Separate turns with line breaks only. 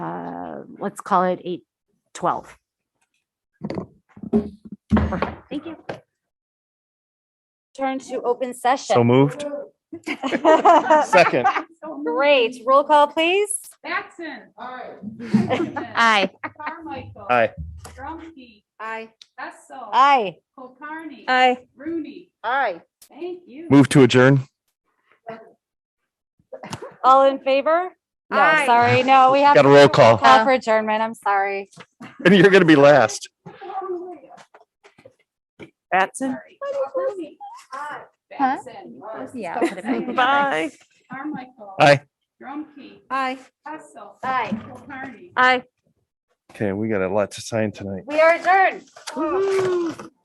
uh, let's call it eight twelve. Perfect. Thank you. Turn to open
So
session.
moved. Second.
Great. Roll call, please.
Batson. Aye.
Aye.
Carmichael.
Aye.
Drumkey.
Aye.
Hessel.
Aye.
Kulkarni.
Aye.
Rooney.
Aye.
Thank you.
Move to adjourn.
All in favor? No,
Aye.
sorry. No, we have.
Got a roll call.
Call for adjournment. I'm sorry.
And you're going to be last.
Batson.
Rooney. Aye. Batson.
Yeah.
Bye.
Carmichael.
Aye.
Drumkey.
Aye.
Hessel.
Aye.
Kulkarni.
Aye.
Okay, we got a lot to sign tonight.
We are adjourned.